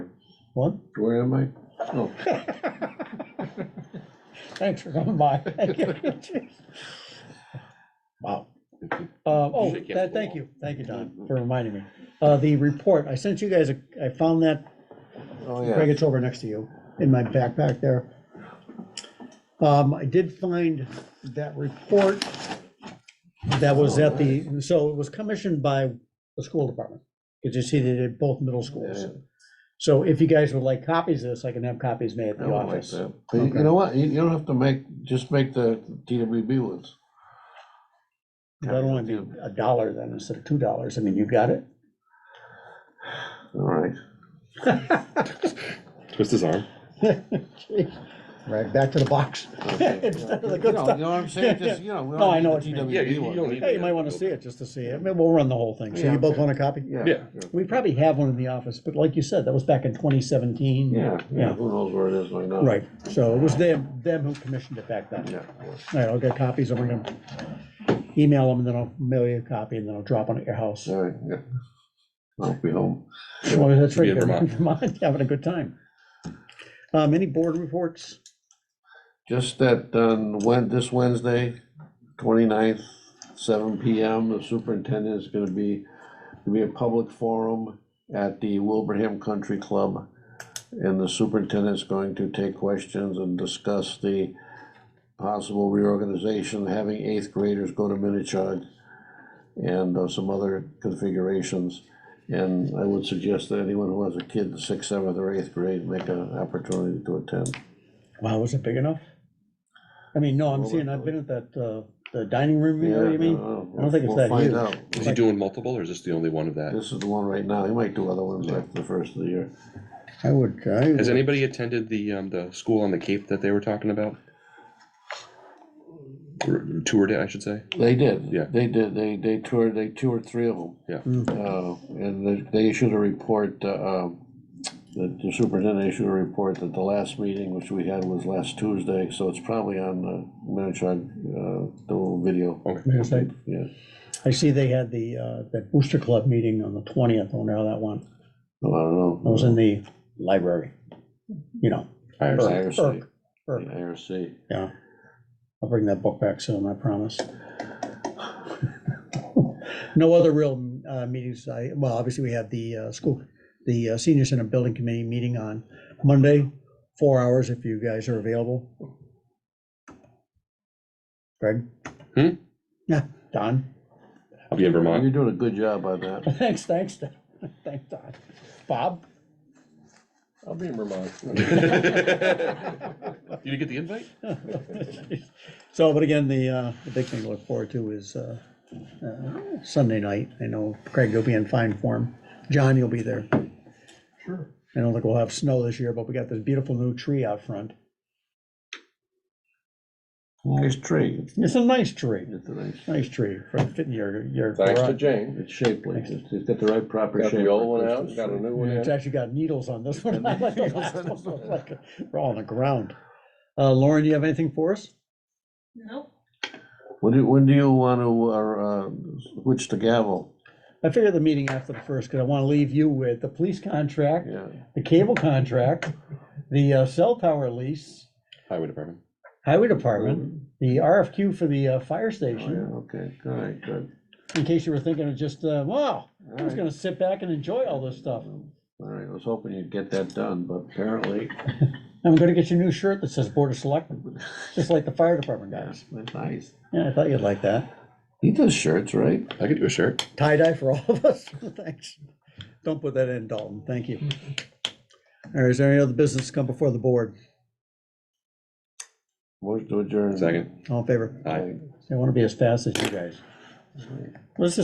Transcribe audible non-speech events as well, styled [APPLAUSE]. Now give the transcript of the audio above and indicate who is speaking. Speaker 1: What?
Speaker 2: Where am I? Oh,
Speaker 1: Thanks for coming
Speaker 2: [LAUGHS]
Speaker 1: by. Wow. Uh, oh,
Speaker 3: Usually kept
Speaker 1: that,
Speaker 3: it
Speaker 1: thank
Speaker 3: long.
Speaker 1: you, thank you,
Speaker 2: Mm-hmm.
Speaker 1: Don, for reminding me. Uh, the report, I sent you guys, a- I found that,
Speaker 2: oh,
Speaker 1: Greg,
Speaker 2: yeah.
Speaker 1: it's over next to you, in my backpack there. Um, I did find that report that was at the, so it was commissioned by the school department. Because you see, they did both middle schools. So if you guys would like copies of this, I can have copies made at
Speaker 2: I
Speaker 1: the
Speaker 2: don't like
Speaker 1: office.
Speaker 2: that. But you-
Speaker 1: Okay.
Speaker 2: You know what? You, you don't have to make, just make the TWB ones.
Speaker 1: That'll only be a dollar then instead of two dollars. I mean, you got it. [LAUGHS]
Speaker 2: All right.
Speaker 3: Twist his arm.
Speaker 1: Right, back to the box.
Speaker 2: Okay.
Speaker 1: [LAUGHS] Instead of the
Speaker 2: You
Speaker 1: good
Speaker 2: know,
Speaker 1: stuff.
Speaker 2: you know what
Speaker 1: [LAUGHS]
Speaker 2: I'm saying? Just, you know. we
Speaker 1: No,
Speaker 2: don't
Speaker 1: I
Speaker 2: need
Speaker 1: know
Speaker 2: the
Speaker 1: what you mean.
Speaker 2: TWB
Speaker 3: Yeah, you- you
Speaker 2: ones.
Speaker 3: don't need-
Speaker 1: Hey, you might want to see it just to see it. I mean, we'll run the whole thing. So you both want a copy?
Speaker 3: Yeah.
Speaker 1: We probably have one in the office, but like you said, that was back in twenty seventeen.
Speaker 2: Yeah, yeah,
Speaker 1: Yeah.
Speaker 2: who knows where it is right now?
Speaker 1: Right, so it was them, them who commissioned it back then.
Speaker 2: Yeah.
Speaker 1: All right, I'll get copies. I'm gonna email them and then I'll mail you a copy and then I'll drop one at your house.
Speaker 2: All right, yeah. I'll be home.
Speaker 1: Well, that's right.
Speaker 3: Be
Speaker 1: [LAUGHS]
Speaker 3: in
Speaker 1: you're
Speaker 3: Vermont.
Speaker 1: Vermont, Having a good time. Um, any board reports?
Speaker 2: Just that, um, when, this Wednesday, 29th, seven PM, the superintendent is gonna be, gonna be a public forum at the Wilbraham Country Club. And the superintendent's going to take questions and discuss the possible reorganization, having eighth graders go to Minichog and uh, some other configurations. And I would suggest that anyone who has a kid in sixth, seventh, or eighth grade make an opportunity to attend.
Speaker 1: Wow, was it big enough? I mean, no, I'm
Speaker 2: Well,
Speaker 1: seeing, I've been at that, uh, the dining room, you know what
Speaker 2: Yeah,
Speaker 1: I mean?
Speaker 2: don't know.
Speaker 1: I don't think it's
Speaker 2: We'll
Speaker 1: that
Speaker 2: find
Speaker 1: huge.
Speaker 2: out.
Speaker 3: Is he doing multiple or is this the only one of that?
Speaker 2: This is the one right now. He might do other ones after the first of the year.
Speaker 1: I would, I
Speaker 3: Has
Speaker 1: would,
Speaker 3: anybody attended the, um, the school on the Cape that they were talking about? Or Toured it, I should say.
Speaker 2: They did.
Speaker 3: Yeah.
Speaker 2: They did. They, they toured, they toured three of them.
Speaker 3: Yeah.
Speaker 2: Uh, and they- they issued a report, uh, um, the the superintendent issued a report that the last meeting, which we had was last Tuesday, so it's probably on the Minichog, uh, the little video.
Speaker 1: Yes, I-
Speaker 2: Yeah.
Speaker 1: I see they had the, uh, that booster club meeting on the twentieth, I wonder how that went.
Speaker 2: Oh, I don't
Speaker 1: I was
Speaker 2: know.
Speaker 1: in the library, you know,
Speaker 3: IRC.
Speaker 1: Irk,
Speaker 2: IRC.
Speaker 1: Irk, Irk.
Speaker 2: IRC.
Speaker 1: yeah. I'll bring that book back soon, I promise. No other real, uh, meetings, I, well, obviously we had the, uh, school, the uh, senior center building committee meeting on Monday, four hours if you guys are available. Greg?
Speaker 3: Hmm?
Speaker 1: Yeah, Don? [LAUGHS]
Speaker 3: I'll be in Vermont.
Speaker 2: You're doing a good job on that.
Speaker 1: Thanks, thanks, Don. thanks, Don. Bob?
Speaker 3: I'll be in Vermont. Did you get the invite?
Speaker 1: So, but again, the, uh, the big thing to look forward to is, uh, uh, Sunday night. I know Craig, you'll be in fine form. John, you'll be there. Sure. I don't think we'll have snow this year, but we got this beautiful new tree out front.
Speaker 2: [LAUGHS] Nice tree.
Speaker 1: It's a nice tree,
Speaker 2: It's a nice,
Speaker 1: nice tree for fitting your, your.
Speaker 4: Thanks to
Speaker 1: garage.
Speaker 4: Jane.
Speaker 2: it's shapely. It's it's got the right proper shape.
Speaker 4: Got the
Speaker 2: for
Speaker 4: old one out,
Speaker 2: Christmas
Speaker 4: got
Speaker 2: tree.
Speaker 4: a new one
Speaker 1: It's
Speaker 4: in.
Speaker 1: actually got needles on this one. [LAUGHS]
Speaker 2: Got needles on this one.
Speaker 1: We're all on the ground. Uh, Lauren, do you have anything for us?
Speaker 5: Nope.
Speaker 2: When do, when do you want to, uh, switch the gavel?
Speaker 1: I figured the meeting after the first, because I want to leave you with the police contract,
Speaker 2: Yeah,
Speaker 1: the cable contract, the uh, cell tower lease,
Speaker 3: Highway Department.
Speaker 1: highway department, the RFQ for the uh, fire
Speaker 2: oh, yeah,
Speaker 1: station,
Speaker 2: okay, all right, good.
Speaker 1: in case you were thinking of just, uh, wow, I'm
Speaker 2: All
Speaker 1: just
Speaker 2: right,
Speaker 1: gonna sit back and enjoy all this stuff.
Speaker 2: all right, I was hoping you'd get that done, but apparently,
Speaker 1: I'm gonna get you a new shirt that says Board of Selectmen, just like the fire department guys.
Speaker 2: that's nice.
Speaker 1: Yeah, I thought you'd like that.
Speaker 2: He does shirts, right?
Speaker 3: I could do a shirt.
Speaker 1: Tie dye for all of us, [LAUGHS] thanks. Don't put that in, Dalton, thank you. All right, is there any other business come before the board?
Speaker 2: Motion to adjourn.
Speaker 3: Second.
Speaker 1: All in favor?
Speaker 3: Aye.
Speaker 1: I want to be as fast as you guys. Let's just